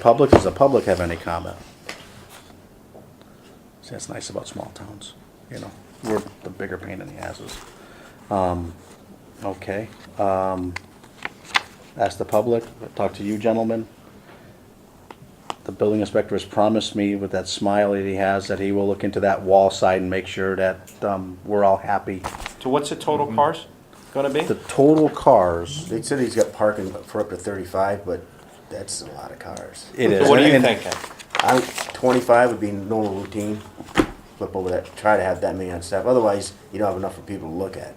Public, does the public have any comment? See, that's nice about small towns, you know, we're the bigger pain in the asses. Um, okay, um, ask the public, talk to you gentlemen. The building inspector has promised me with that smile that he has, that he will look into that wall side and make sure that, um, we're all happy. So what's the total cars gonna be? The total cars, They said he's got parking for up to thirty-five, but that's a lot of cars. it is. So what are you and- thinking? I, twenty-five would be normal routine, flip over that, try to have that many on staff, otherwise you don't have enough for people to look at.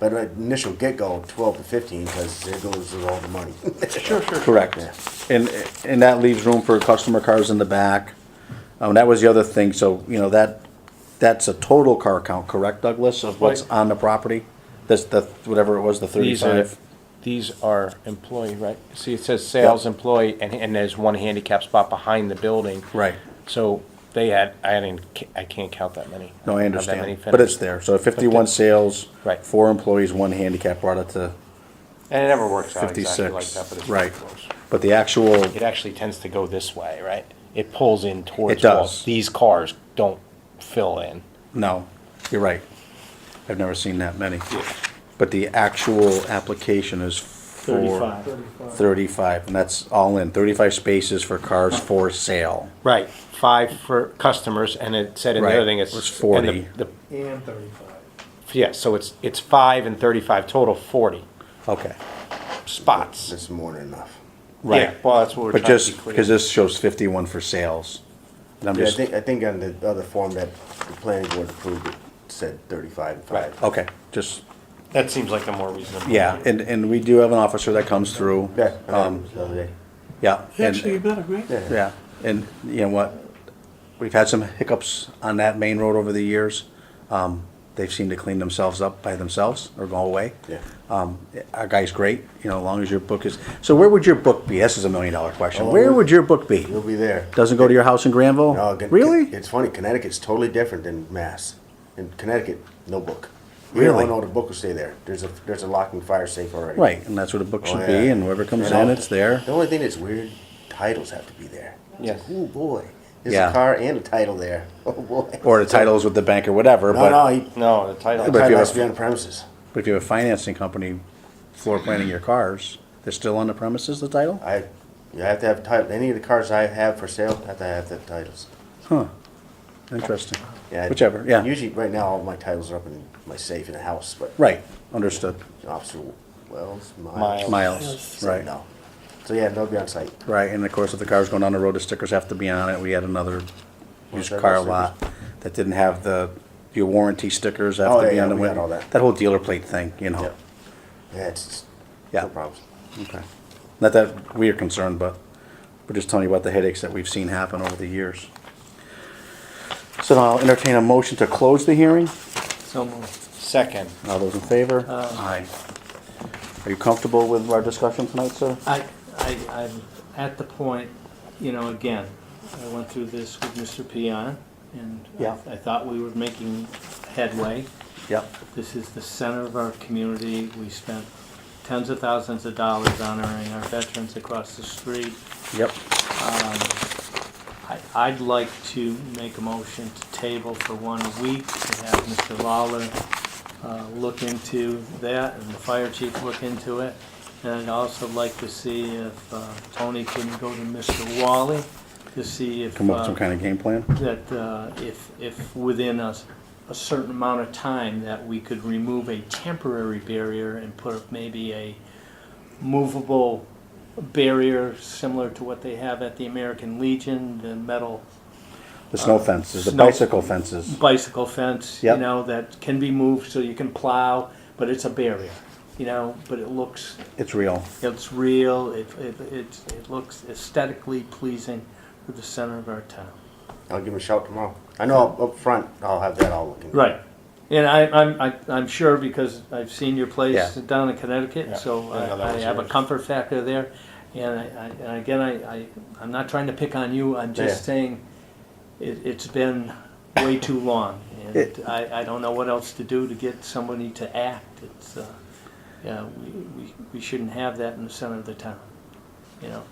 But at initial get-go, twelve to fifteen, cause there goes with all the money. Sure, sure. Correct. And, and that leaves room for customer cars in the back. Um, that was the other thing, so, you know, that, that's a total car count, correct, Douglas, of what's Right. on the property? That's the, whatever it was, the These are, thirty-five? these are employee, right? See, it says sales employee, and, and there's one handicap spot behind the building. Right. So they had, I didn't, ca- I can't count that many. No, I Have that many understand, but it's finished. there, so fifty-one sales. Right. Four employees, one handicap, brought it to And it never works out exactly like that, but fifty-six. it's. Right, close. but the actual, It actually tends to go this way, right? It pulls in towards. It does. walls. These cars don't fill in. no, you're right. I've never seen that many. But the actual application is for. Thirty-five, and that's all in, thirty-five spaces for cars for sale. Right, five for customers, and it said in the Right, other thing, it's. it's and 40. the- the- And thirty-five. Yeah, so it's, it's five and thirty-five total, forty Okay, spots. That's more than enough. right. Yeah, Well, that's what we're but trying to be just, clear. because this shows fifty-one for sales. And I'm Yeah, I just, think, I think on the other form that the planning board approved, it said thirty-five and Right. five. okay, just, That seems like a more reasonable. yeah, and, and we do have an officer that comes through. Yeah, um, Um, the other day. yeah. and- Actually, you better, right? Yeah. Yeah, and you know what? We've had some hiccups on that main road over the years. Um, they've seemed to clean themselves up by themselves or go away. Yeah. Um, our guy's great, you know, as long as your book is, so where would your book be? This is a million dollar question. Oh, Where we- would your book be? You'll be there. Doesn't go to your house in Granville? No, Con- Really? It's funny. Connecticut's totally different than Mass. In Connecticut, no book. We Really? don't know the book will stay there. There's a there's a lock and fire safe already. Right, and that's where the book Oh, should yeah. be and whoever comes And in, I'll- it's there. The only thing that's weird, titles have to be there. Yes. Oh boy, there's Yeah. a car and a title there. Oh boy. Or the titles with the bank or whatever, No, no, but, he, No, the the title. But- if you have- title has to be on premises. but if you have a financing company floor planning your cars, they're still on the premises, the title? I, you have to have title. Any of the cars I have for sale have to have the titles. Huh. Interesting. Yeah, I- Whichever, yeah. Usually, right now, all my titles are up in my safe in the house, but Right, understood. Officer Wells, Miles. Miles. Miles, Right. right, No. So yeah, they'll be on site. right, and of course, if the car's going down the road, the stickers have to be on it, we had another used that car those lot that didn't have the, your warranty stickers have Oh, to yeah, be on yeah, the we got window. all that. That whole dealer plate thing, you Yeah. know, Yeah, it's, Yeah. no problems. okay. Not that we are concerned, but we're just telling you about the headaches that we've seen happen over the years. So now I'll entertain a motion to close the hearing, So moved. Second, all those in favor? Uh, Aye. Are you comfortable with our discussion tonight, sir? I, I, I'm at the point, you know, again, I went through this with Mr. Peon, and I- Yeah. I thought we were making headway. Yep. This is the center of our community. We spent tens of thousands of dollars honoring our veterans across the street. Yep, I, I'd like to make a motion to table for one week to have Mr. Lawler uh, look into that and the fire chief look into it. And I'd also like to see if uh, Tony can go to Mr. Wally to see if, come up with uh, some kind of game plan? that uh, if, if within a, s- a certain amount of time that we could remove a temporary barrier and put maybe a movable barrier similar to what they have at the American Legion, the metal The snow fences, the uh, snow- bicycle fences. bicycle fence, you Yep. know, that can be moved so you can plow, but it's a barrier, you know, but it looks, It's real. it's real, it, it, it, it looks aesthetically pleasing for the center of our town. I'll give him a shout tomorrow. I know up- up front, I'll have that all looking. Right. And I, I'm, I, I'm sure because I've seen your place Yeah. down in Connecticut, Yeah. so I know that I, I was have a yours. comfort factor there. And I, I, and again, I, I, I'm not trying to pick on you, I'm just Yeah. saying it, it's been way too long. And It- I, I don't know what else to do to get somebody to act. It's, uh, yeah, we, we, we shouldn't have that in the center of the town, you know?